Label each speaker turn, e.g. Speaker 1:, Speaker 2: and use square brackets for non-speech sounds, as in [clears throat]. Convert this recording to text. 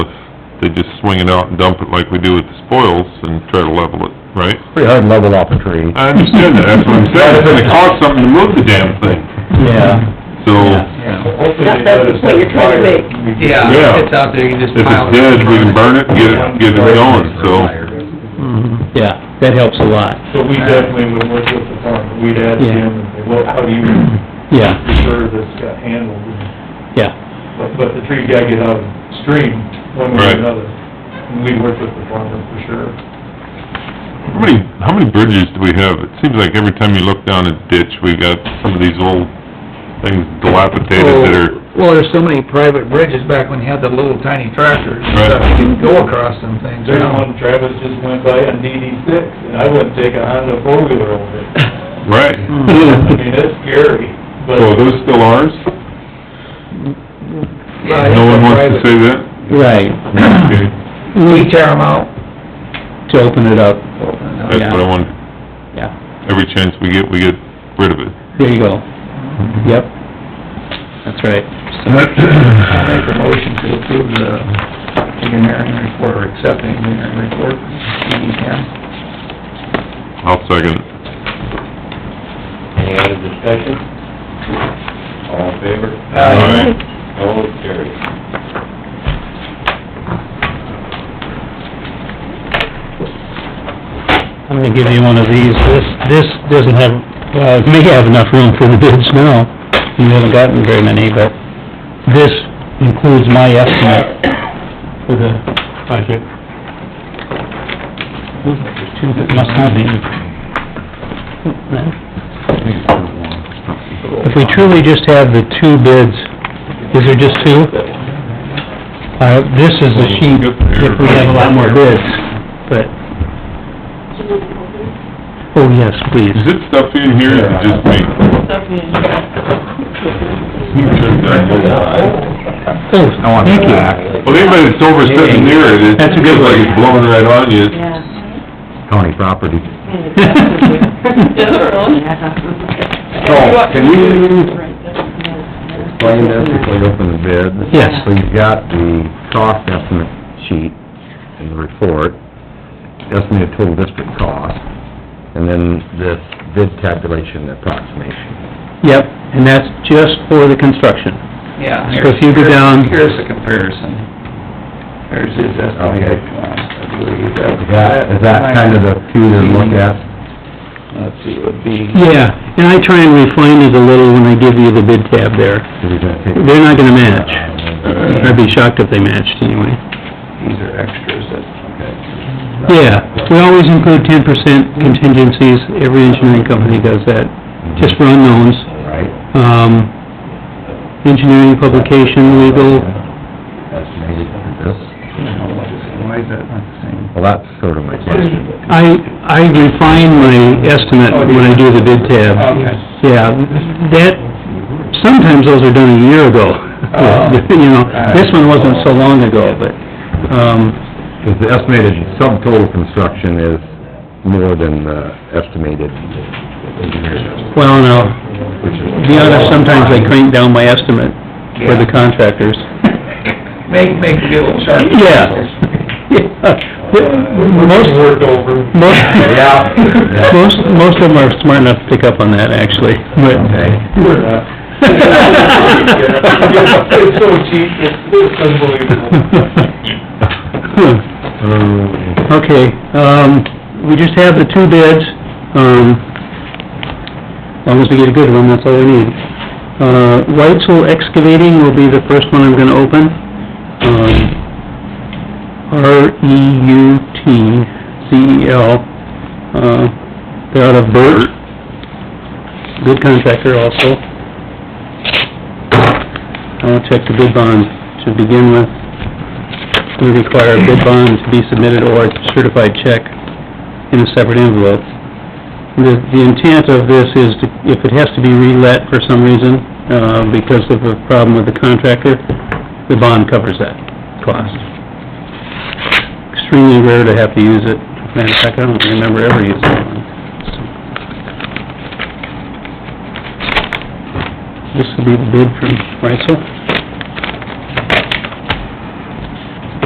Speaker 1: just swing it out and dump it like we do with the spoils and try to level it, right?
Speaker 2: Pretty hard to level off a tree.
Speaker 1: I understand that, that's what I'm saying, it's gonna cost something to move the damn thing,
Speaker 2: Yeah.
Speaker 1: so,
Speaker 3: Hopefully
Speaker 4: That- that's the point you're trying to make.
Speaker 1: Yeah.
Speaker 3: Yeah, if it's out there, you can just
Speaker 1: if
Speaker 3: pile
Speaker 1: it's
Speaker 3: it.
Speaker 1: dead, we can burn it, and get it, get it going, so.
Speaker 2: Yeah, that helps a lot,
Speaker 5: So we definitely would work with the farm, we'd ask
Speaker 2: Yeah.
Speaker 5: him, and say, well, how do you
Speaker 2: yeah,
Speaker 5: prefer this got handled?
Speaker 2: yeah,
Speaker 5: But, but the tree guy get out of stream, one way
Speaker 1: Right.
Speaker 5: or another, and we'd work with the farmer for sure.
Speaker 1: How many, how many bridges do we have? It seems like every time you look down a ditch, we got some of these old things dilapidated that are,
Speaker 3: Well, there's so many private bridges back when you had the little tiny tractors and stuff,
Speaker 1: Right.
Speaker 3: you can go across them things.
Speaker 5: There's one Travis just went by on DD six, and I wouldn't take a Honda four-wheeler over it.
Speaker 3: [laughs]
Speaker 1: right.
Speaker 5: I mean, it's scary, but.
Speaker 1: So are those still ours? No one wants to say that?
Speaker 3: [clears throat]
Speaker 2: right.
Speaker 1: Okay,
Speaker 3: We tear them out.
Speaker 2: To open it up,
Speaker 1: That's what I want,
Speaker 2: yeah,
Speaker 1: every chance we get, we get rid of it.
Speaker 2: there you go. Yep, that's right.
Speaker 3: I make a motion to approve the engineering report, or accept the engineering report, DD ten.
Speaker 1: I'll second it.
Speaker 4: Any other discussion? All in favor?
Speaker 1: Aye.
Speaker 4: Opposed, carried.
Speaker 2: I'm gonna give you one of these, this, this doesn't have, uh, may have enough room for the bids now, you haven't gotten very many, but this includes my estimate for the project. Two that must not be. If we truly just have the two bids, is there just two? Uh, this is the sheet, if we have a lot more bids, but... Oh, yes, please.
Speaker 1: Is it stuff in here, or is it just me?
Speaker 2: Oh, thank you.
Speaker 1: Well, anybody that's over sitting near it, it's
Speaker 2: That's a good
Speaker 1: like
Speaker 2: one.
Speaker 1: it's blowing right on you.
Speaker 2: County
Speaker 1: [laughs]
Speaker 2: property.
Speaker 4: So,
Speaker 2: can you
Speaker 4: explain
Speaker 6: this before
Speaker 4: you
Speaker 2: open the bid?
Speaker 6: Yes.
Speaker 2: So you've got the cost estimate sheet in the report, estimated total district cost, and then this bid tabulation approximation. Yep, and that's just for the construction.
Speaker 3: Yeah.
Speaker 2: So if you go down-
Speaker 3: Here's a comparison. There's his estimated
Speaker 2: Okay.
Speaker 3: cost, I believe. that-
Speaker 2: Is that, is that kind of the few to look at?
Speaker 3: Let's see, it would be.
Speaker 2: Yeah, and I try and refine it a little when I give you the bid tab there. They're not gonna match. I'd be shocked if they matched anyway.
Speaker 3: These are extras that...
Speaker 2: Yeah, we always include ten percent contingencies, every engineering company does that, just for unknowns.
Speaker 6: Right.
Speaker 2: Um, engineering, publication, legal,
Speaker 6: Estimated for this.
Speaker 3: Why is that not the same?
Speaker 6: Well, that's sort of my question.
Speaker 2: I, I refine my estimate when I do the bid tab.
Speaker 3: Okay.
Speaker 2: Yeah, that, sometimes those are done a year ago, [laughs] you know, this one wasn't so long ago, but, um,
Speaker 6: Because the estimated subtotal construction is more than the estimated engineer's.
Speaker 2: well, no, to be honest, sometimes I crank down my estimate for the contractors. [laughs]
Speaker 3: [laughs] Make, make the deal sharp.
Speaker 2: Yeah. Most,
Speaker 5: Worked over.
Speaker 2: [laughs] most,
Speaker 6: Yeah.
Speaker 2: [laughs] most, most of them are smart enough to pick up on that, actually, but...
Speaker 5: We're
Speaker 2: [laughs]
Speaker 5: not. It's so cheap, it's it's unbelievable.
Speaker 6: [laughs]
Speaker 2: Okay, um, we just have the two bids, um, as long as we get a good one, that's all we need. Uh, Whitesell Excavating will be the first one I'm gonna open, um, E R-E-U-T-C-E-L, E uh, they're out of Burt, good contractor also. I'll check the bid bond to begin with. We require a bid bond to be submitted or a certified check in a separate envelope. The, the intent of this is to, if it has to be relet for some reason, uh, because of a problem with the contractor, the bond covers that cost. Extremely rare to have to use it. Matter of fact, I don't remember ever using one. This will be the bid from Reitzel.